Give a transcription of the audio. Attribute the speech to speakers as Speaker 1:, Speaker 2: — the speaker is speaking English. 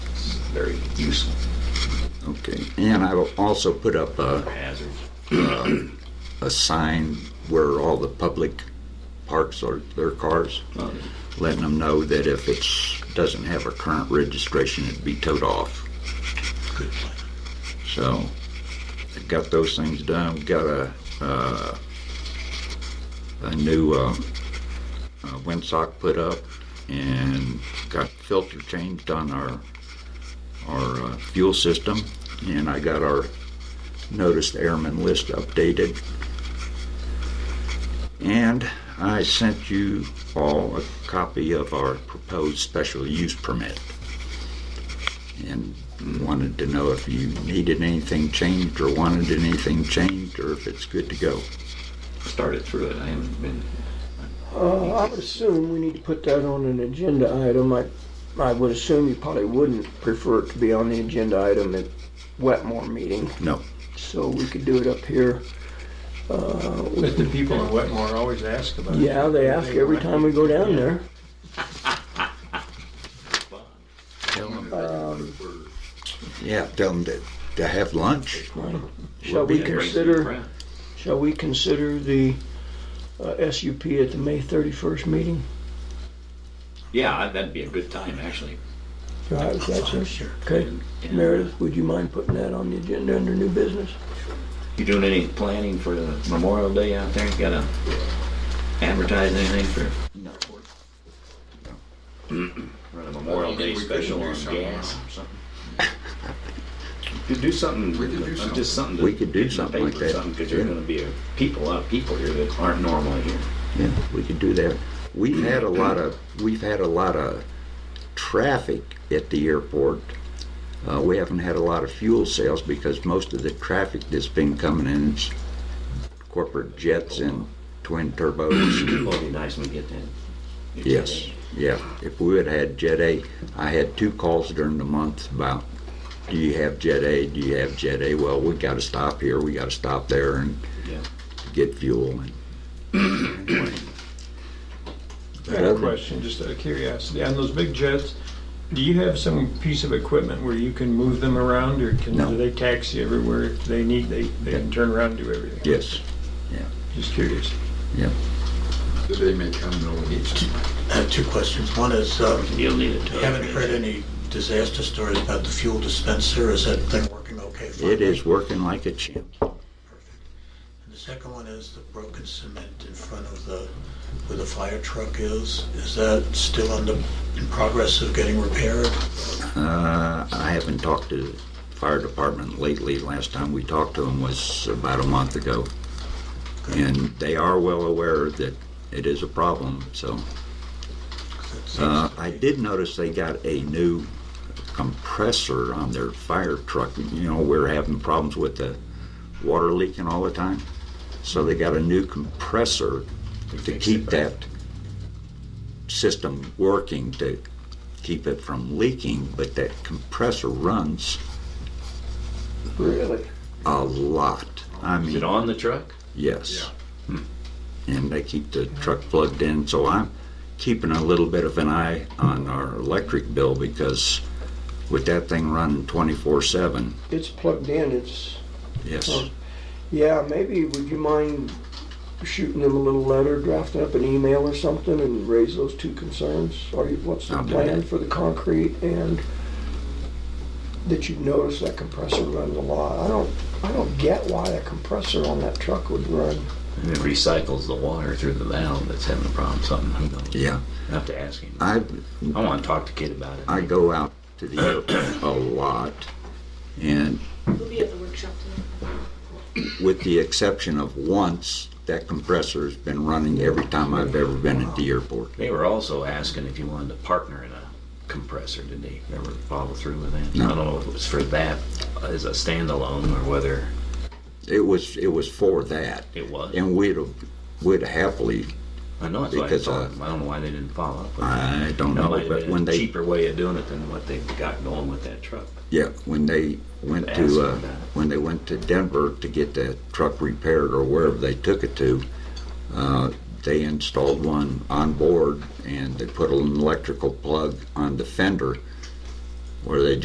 Speaker 1: very useful.
Speaker 2: Okay, and I will also put up a,
Speaker 1: Hazards.
Speaker 2: a sign where all the public parks are, their cars, letting them know that if it's, doesn't have a current registration, it'd be towed off. So, I got those things done, got a, uh, a new, um, uh, windsock put up and got filter changed on our, our uh, fuel system. And I got our noticed airman list updated. And I sent you all a copy of our proposed special use permit. And wanted to know if you needed anything changed or wanted anything changed or if it's good to go.
Speaker 1: Started through it. I haven't been.
Speaker 3: Uh, I would assume we need to put that on an agenda item. I, I would assume you probably wouldn't prefer it to be on the agenda item at Wetmore meeting,
Speaker 2: No.
Speaker 3: so we could do it up here.
Speaker 4: But the people in Wetmore always ask about it.
Speaker 3: Yeah, they ask every time we go down there.
Speaker 2: Yeah, tell them to, to have lunch.
Speaker 3: Shall we consider, shall we consider the uh, SUP at the May 31st meeting?
Speaker 1: Yeah, that'd be a good time, actually.
Speaker 3: Right, if that's it. Okay. Meredith, would you mind putting that on the agenda under new business?
Speaker 1: You doing any planning for the Memorial Day out there? Got to advertise anything for?
Speaker 2: No.
Speaker 1: Run a Memorial Day special on gas. You do something, uh, just something. to
Speaker 2: We could do
Speaker 1: get in the
Speaker 2: something like
Speaker 1: paper or
Speaker 2: that,
Speaker 1: Something, because there's
Speaker 2: yeah.
Speaker 1: gonna be a people, a lot of people here that aren't normally here.
Speaker 2: Yeah, we could do that. We've had a lot of, we've had a lot of traffic at the airport. Uh, we haven't had a lot of fuel sales because most of the traffic that's been coming in is corporate jets and twin turbos.
Speaker 1: It'd be nice when we get that.
Speaker 2: Yes, yeah. If we had had Jet A, I had two calls during the month about, do you have Jet A? Do you have Jet A? Well, we gotta stop here, we gotta stop there and
Speaker 1: Yeah.
Speaker 2: get fuel and. anyway.
Speaker 4: I have a question, just out of curiosity. On those big jets, do you have some piece of equipment where you can move them around or can,
Speaker 2: No.
Speaker 4: do they taxi everywhere if they need, they, they can turn around and do everything?
Speaker 2: Yes.
Speaker 4: Just curious.
Speaker 5: They may come and only need some.
Speaker 6: I have two questions. One is, um,
Speaker 1: You'll need it.
Speaker 6: we haven't heard any disaster stories about the fuel dispenser. Is that thing working okay? finally?
Speaker 2: It is working like a champ.
Speaker 6: And the second one is the broken cement in front of the, where the fire truck is. Is that still under, in progress of getting repaired?
Speaker 2: Uh, I haven't talked to the fire department lately. Last time we talked to them was about a month ago. And they are well aware that it is a problem, so.
Speaker 6: 'Cause it seems
Speaker 2: Uh,
Speaker 6: to
Speaker 2: I
Speaker 6: be-
Speaker 2: did notice they got a new compressor on their fire truck. You know, we're having problems with the water leaking all the time. So they got a new compressor to keep that system working to keep it from leaking, but that compressor runs
Speaker 3: Really?
Speaker 2: a lot. I
Speaker 1: Is it
Speaker 2: mean,
Speaker 1: on the truck?
Speaker 2: yes. Hmm. And they keep the truck plugged in, so I'm keeping a little bit of an eye on our electric bill because with that thing running twenty-four seven,
Speaker 3: It's plugged in, it's,
Speaker 2: yes.
Speaker 3: Oh. yeah, maybe, would you mind shooting them a little letter, drafting up an email or something and raise those two concerns? Are you, what's the
Speaker 2: I'll do
Speaker 3: plan
Speaker 2: that.
Speaker 3: for the concrete and that you notice that compressor runs a lot? I don't, I don't get why a compressor on that truck would run.
Speaker 1: It recycles the water through the valve that's having a problem, something, who knows?
Speaker 2: Yeah,
Speaker 1: I have to ask him.
Speaker 2: I,
Speaker 1: I wanna talk to Kid about it.
Speaker 2: I go out to the airport a lot and
Speaker 7: We'll be at the workshop tonight.
Speaker 2: with the exception of once, that compressor's been running every time I've ever been at the airport.
Speaker 1: They were also asking if you wanted to partner in a compressor. Did they ever follow through with that? I don't know if it was for that as a standalone or whether
Speaker 2: It was, it was for that.
Speaker 1: it was.
Speaker 2: And we'd, have- we'd happily,
Speaker 1: I know it's
Speaker 2: because,
Speaker 1: I,
Speaker 2: uh,
Speaker 1: thought- I don't know why they didn't follow up. with it.
Speaker 2: I don't
Speaker 1: That might
Speaker 2: know,
Speaker 1: have
Speaker 2: but
Speaker 1: been
Speaker 2: when
Speaker 1: a
Speaker 2: they,
Speaker 1: cheaper way of doing it than what they've got going with that truck.
Speaker 2: yeah, when they went
Speaker 1: Ask
Speaker 2: to,
Speaker 1: them
Speaker 2: uh,
Speaker 1: about it.
Speaker 2: when they went to Denver to get that truck repaired or wherever they took it to, uh, they installed one on board and they put an electrical plug on the fender where they